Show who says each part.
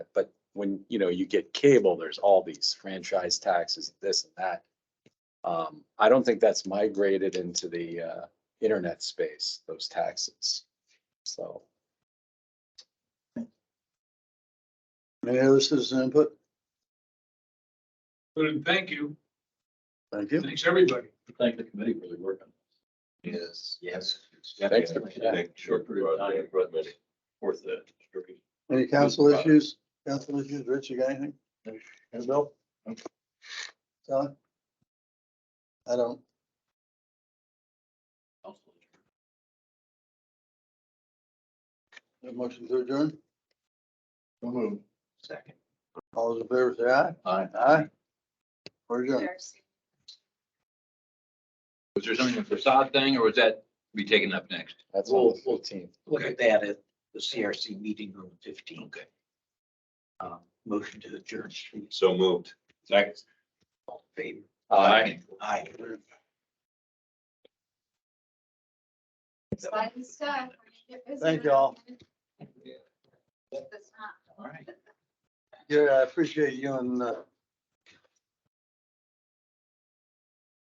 Speaker 1: when, you know, you get cable, there's all these franchise taxes, this and that. Um, I don't think that's migrated into the, uh, internet space, those taxes. So,
Speaker 2: Any other citizen input?
Speaker 3: Good, thank you.
Speaker 2: Thank you.
Speaker 3: Thanks, everybody.
Speaker 4: Thank the committee for the work on.
Speaker 5: Yes. Yes.
Speaker 1: Thanks for-
Speaker 5: Short period of time, but maybe
Speaker 4: Worth the. struggle.
Speaker 2: Any council issues? Council issues, Rich, you got anything? And Bill? Don? I don't. A Motion to adjourn?
Speaker 4: So moved.
Speaker 5: Second.
Speaker 2: All those in favor say aye.
Speaker 4: Aye.
Speaker 2: Aye. We're adjourned.
Speaker 6: There's-
Speaker 4: Was there something with facade thing or was that be taken up next?
Speaker 1: that's all fifteen.
Speaker 5: Look at that at the CRC meeting room fifteen. Okay. Um, motion to adjourn. So moved. Second. All in favor. Aye.
Speaker 6: it's fun stuff. We're gonna get busy
Speaker 2: Thank
Speaker 6: with
Speaker 2: y'all.
Speaker 6: it.
Speaker 5: Yeah.
Speaker 6: It's not-
Speaker 5: All right.
Speaker 2: Yeah, I appreciate you and uh,